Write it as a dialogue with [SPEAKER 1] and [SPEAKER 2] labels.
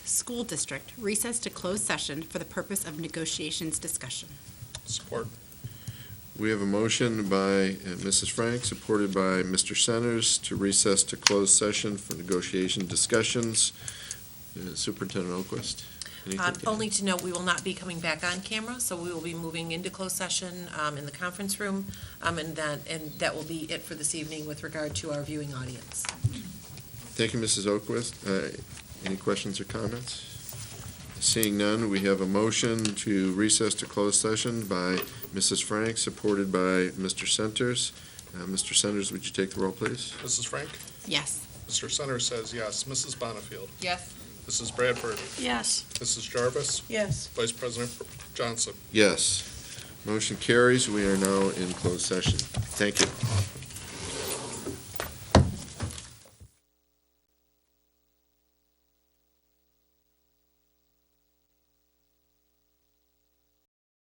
[SPEAKER 1] School District recess to close session for the purpose of negotiations discussion.
[SPEAKER 2] Support.
[SPEAKER 3] We have a motion by uh, Mrs. Frank, supported by Mr. Centers, to recess to closed session for negotiation discussions. Uh, Superintendent Oquist? anything
[SPEAKER 4] Um,
[SPEAKER 3] to add?
[SPEAKER 4] Only to note, we will not be coming back on camera, so we will be moving into closed session um, in the conference room, um, and that, and that will be it for this evening with regard to our viewing audience.
[SPEAKER 3] Thank you, Mrs. Oquist. Uh, Any questions or comments? Seeing none, we have a motion to recess to closed session by Mrs. Frank, supported by Mr. Centers. Uh, Mr. Centers, would you take the roll, please?
[SPEAKER 2] Mrs. Frank?
[SPEAKER 1] Yes.
[SPEAKER 2] Mr. Centers says yes. Mrs. Bonnefield?
[SPEAKER 4] Yes.
[SPEAKER 2] Mrs. Bradford?
[SPEAKER 5] Yes.
[SPEAKER 2] Mrs. Jarvis?
[SPEAKER 5] Yes.
[SPEAKER 2] Vice President Johnson?
[SPEAKER 3] Yes. Motion carries. We are now in closed session. Thank you.